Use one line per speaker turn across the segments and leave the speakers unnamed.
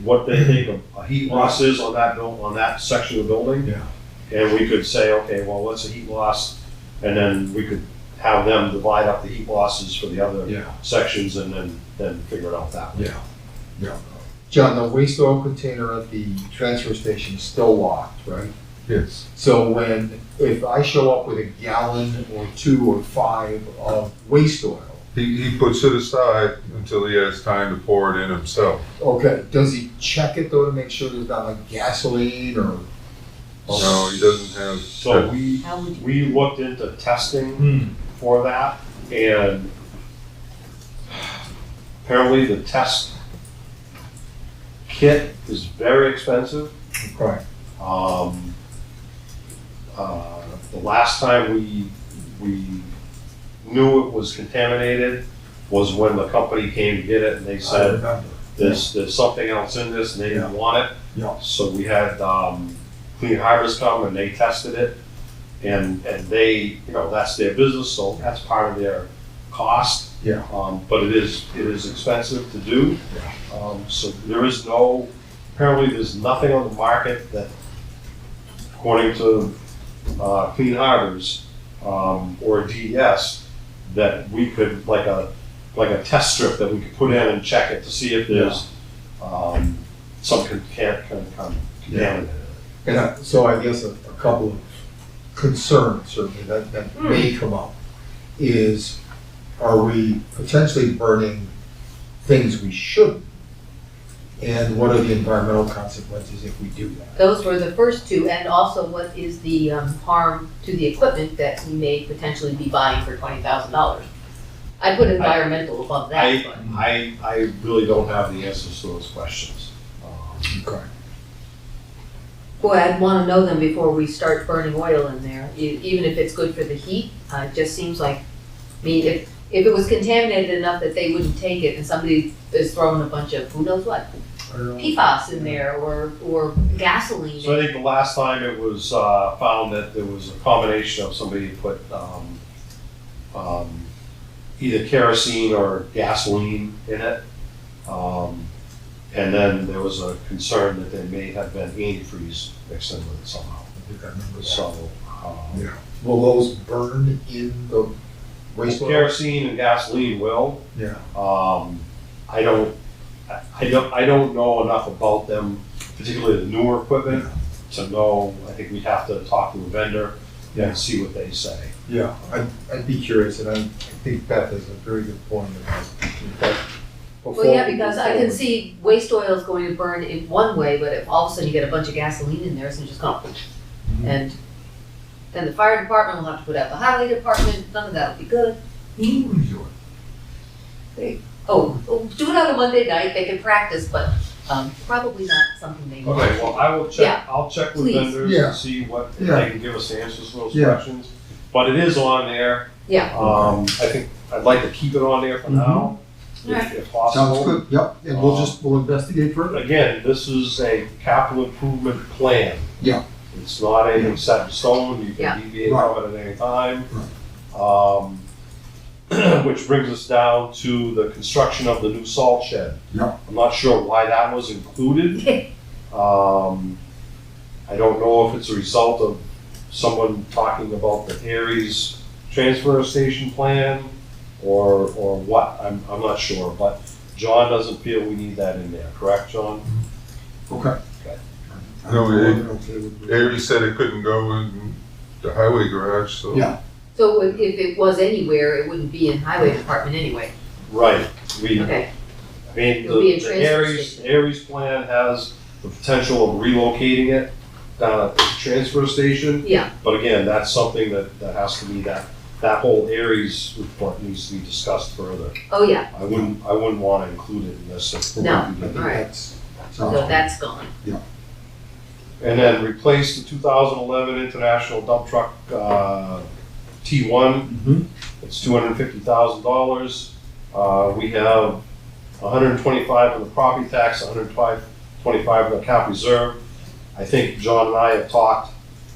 what they think a heat
loss.
loss is on that buil, on that section of the building.
Yeah.
And we could say, okay, well, what's the heat loss? And then we could have them divide up the heat losses for the other
Yeah,
sections and then, then figure it out that way.
yeah, yeah.
John, the waste oil container at the transfer station is still locked, right?
Yes.
So when, if I show up with a gallon or two or five of waste oil,
He, he puts it aside until he has time to pour it in himself.
okay, does he check it though to make sure there's not like gasoline or?
No, he doesn't have.
So we,
How would you?
we looked into testing
Hmm,
for that, and apparently the test kit is very expensive.
Right.
Um, uh, the last time we, we knew it was contaminated was when the company came to get it and they
I
Uh,
said,
remember.
there's, there's something else in this and they didn't want it.
Yeah.
So we had, um, Clean Harbors come and they tested it. And, and they, you know, that's their business, so that's part of their cost.
Yeah.
Um, but it is, it is expensive to do. Um, so there is no, apparently there's nothing on the market that, according to, uh, Clean Harbors, um, or DES, that we could, like a, like a test strip that we could put in and check it to see if there's, um, some can, can, can, can, contaminant.
And I- so I guess a, a couple of concerns certainly that, that
Hmm.
may come up is, are we potentially burning things we shouldn't? And what are the environmental consequences if we do that?
Those were the first two, and also what is the um, harm to the equipment that we may potentially be buying for twenty thousand dollars? I put environmental above that, but.
I, I really don't have the answers to those questions. Um,
Okay.
Boy, I'd wanna know them before we start burning oil in there, e- even if it's good for the heat, uh, it just seems like, I mean, if, if it was contaminated enough that they wouldn't take it and somebody is throwing a bunch of who knows what,
I don't know.
PFAS in there or, or gasoline.
So I think the last time it was, uh, found that there was a combination of somebody had put, um, um, either kerosene or gasoline in it. Um, and then there was a concern that there may have been antifreeze mixed in with it somehow.
I think I remember that.
So, um,
Yeah.
Will those burn in the wastewater?
kerosene and gasoline will,
Yeah.
Um, I don't, I- I don't, I don't know enough about them, particularly the newer equipment, to know, I think we'd have to talk to a vendor
Yeah.
and see what they say.
Yeah, I'd, I'd be curious, and I, I think Beth has a very good point about that.
Well, yeah, because I can see waste oil is going to burn in one way, but if all of a sudden you get a bunch of gasoline in there, it's just gonna, and then the fire department will have to put out the highway department, none of that'll be good. Oh, oh, do it on a Monday night, they can practice, but, um, probably not something they want.
Okay, well, I will check, I'll check with
Mm-hmm. Please.
vendors
Yeah.
and see what, if
Yeah.
they can give us the answers to those
Yeah.
questions. But it is on there.
Yeah.
Um, I think, I'd like to keep it on there for
Mhm.
now, if
Alright.
if possible. Uh,
yep, and
we'll just-
we'll investigate further.
Again, this is a capital improvement plan.
Yeah.
It's not anything set in stone, you
Yeah.
can deviate
Right.
from it at any time. Um, Which brings us down to the construction of the new salt shed.
Yeah.
I'm not sure why that was included. Um, I don't know if it's a result of someone talking about the Aries transfer station plan or, or what, I'm, I'm not sure, but John doesn't feel we need that in there, correct, John?
Okay.
Okay.
No, it-
it.
Avery said it couldn't go in the highway garage, so.
Yeah.
So if, if it was anywhere, it wouldn't be in highway department anyway,
Right, we, I
okay,
mean,
It'll be
the
a
the
transfer
Aries,
station.
Aries plan has the potential of relocating it down at the transfer station,
yeah,
but again, that's something that, that has to be that, that whole Aries report needs to be discussed further.
oh, yeah,
I wouldn't, I wouldn't wanna include it in this. if we
No.
do that.
All right. so
Oh.
that's gone.
And then replace the two thousand eleven International Dump Truck, uh, T one
Mm-hmm.
It's two hundred and fifty thousand dollars. Uh, we have $125 on the property tax, $125 on the cap reserve. I think John and I have talked,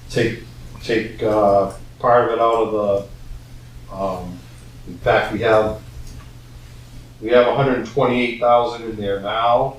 take, take, uh, part of it out of the, um, in fact, we have, we have $128,000 in there now.